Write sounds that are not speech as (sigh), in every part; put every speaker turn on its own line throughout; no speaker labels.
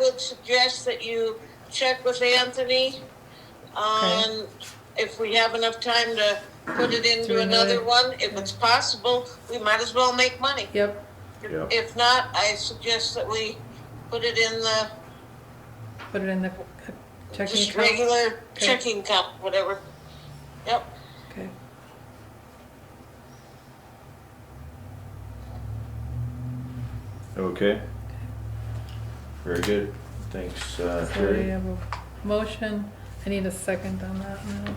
would suggest that you check with Anthony on if we have enough time to put it
Do
into
another-
another one. If it's possible, we might as well make money.
Yep,
Yeah.
If not, I suggest that we put it in the
put it in the checking
just
account.
regular
Okay.
checking cup, whatever. Yep.
Okay.
Okay. Very good. Thanks, uh,
So we
Terry.
have a motion. I need a second on that now.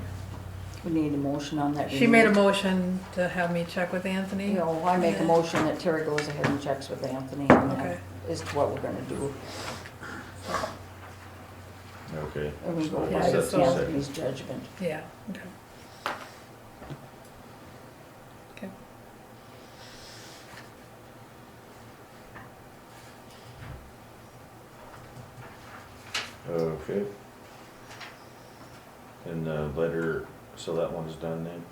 We need a motion on that.
She made a motion to have me check with Anthony.
You know, Mm. I make a motion that Terry goes ahead and checks with Anthony and that
Okay.
is what we're gonna do.
Okay.
And we go
So
Yeah,
by
that's all.
Anthony's judgment.
Yeah, okay. Okay.
Okay. And the letter, so that one's done then?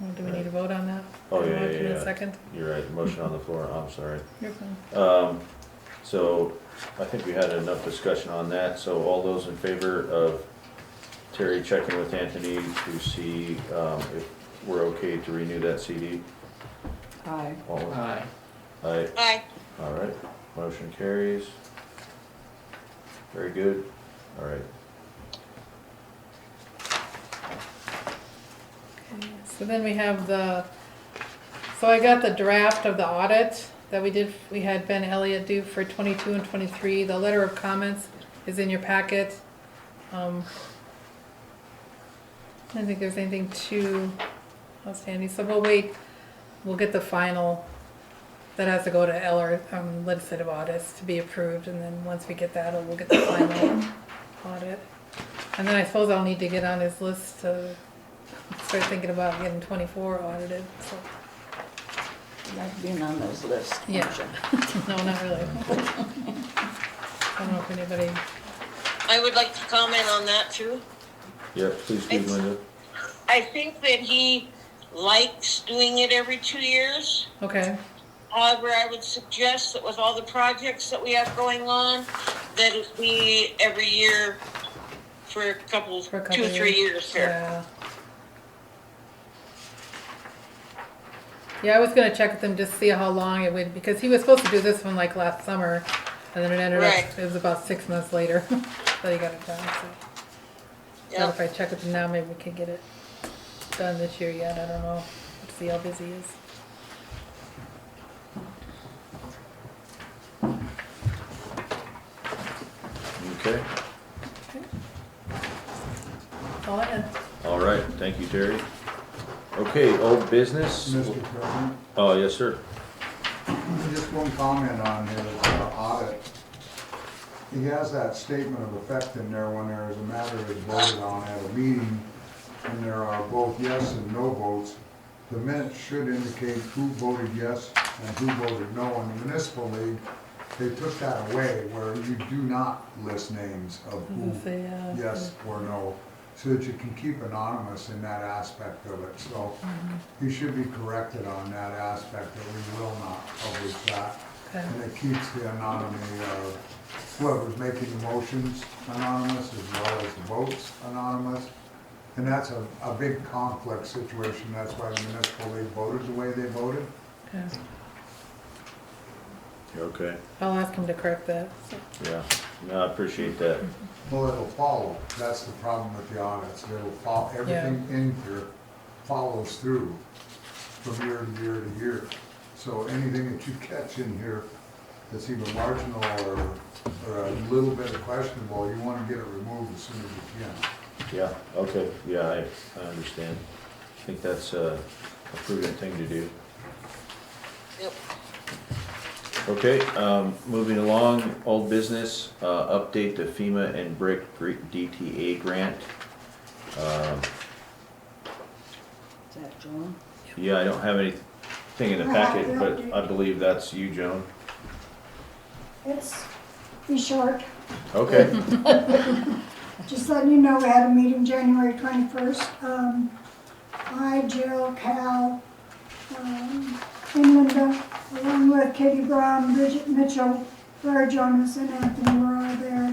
Well, Do we need to vote on that?
Oh, yeah, yeah,
Motion and
yeah.
Second?
You're right, motion on the floor, I'm sorry.
You're fine.
Um, so I think we had enough discussion on that, so all those in favor of Terry checking with Anthony to see, um, if we're okay to renew that CD?
Aye.
All,
Aye.
aye,
Aye.
all right, motion carries. Very good, all right.
Okay, So then we have the, so I got the draft of the audit that we did, we had Ben Elliott do for twenty-two and twenty-three. The letter of comments is in your packet. Um, I don't think there's anything too outstanding, so we'll wait, we'll get the final. That has to go to Eller, um, legislative audits to be approved, and then once we get that, we'll get the final audit. And then I suppose I'll need to get on his list to start thinking about getting twenty-four audited, so,
Not being on those lists.
Yeah. no, not really. I don't know if anybody,
I would like to comment on that too.
Yeah, please do,
Thanks.
Linda.
I think that he likes doing it every two years.
okay,
However, I would suggest that with all the projects that we have going on, that it be every year for a couple,
for a couple
two or
years.
three years here.
Yeah. Yeah, I was gonna check with him, just see how long it would, because he was supposed to do this one like last summer, and then it ended
Right.
up, it was about six months later, (laughs) that he got it done, so. So if
Yep.
I check with him now, maybe we could get it done this year yet, I don't know, see how busy he is.
Okay,
That's All I had.
all right, thank you, Terry. Okay, old business?
Mr. President,
Oh, yes, sir.
just one comment on his uh, audit. He has that statement of effect in there when there is a matter is voted on at a meeting, and there are both yes and no votes. The minutes should indicate who voted yes and who voted no. In the municipal league, they took that away where you do not list names of who
Doesn't say, uh,
yes or no, so that you can keep anonymous in that aspect of it. So you should be corrected on that aspect, that we will not publish that.
Okay.
And it keeps the anonymity of whoever's making the motions anonymous as well as the votes anonymous. And that's a, a big conflict situation. That's why the municipal league voted the way they voted.
Okay.
Okay,
I'll ask him to correct that.
yeah, no, I appreciate that.
Well, it'll follow. That's the problem with the audits. It'll follow, everything in here follows through from year to year to year. So anything that you catch in here that's even marginal or, or a little bit questionable, you wanna get it removed as soon as you can.
Yeah, okay, yeah, I, I understand. I think that's uh, a prudent thing to do.
Yep.
Okay, um, moving along, old business, uh, update the FEMA and BRIC gr- DTA grant. Um,
Is that Joan?
Yeah, I don't have anything in the packet, but I believe that's you, Joan.
It's, be short.
Okay,
Just letting you know, we had a meeting January 21st. Um, I, Jill, Cal, um, and Linda, along with Katie Brown, Bridget Mitchell, Larry Jonas, and Anthony were all there.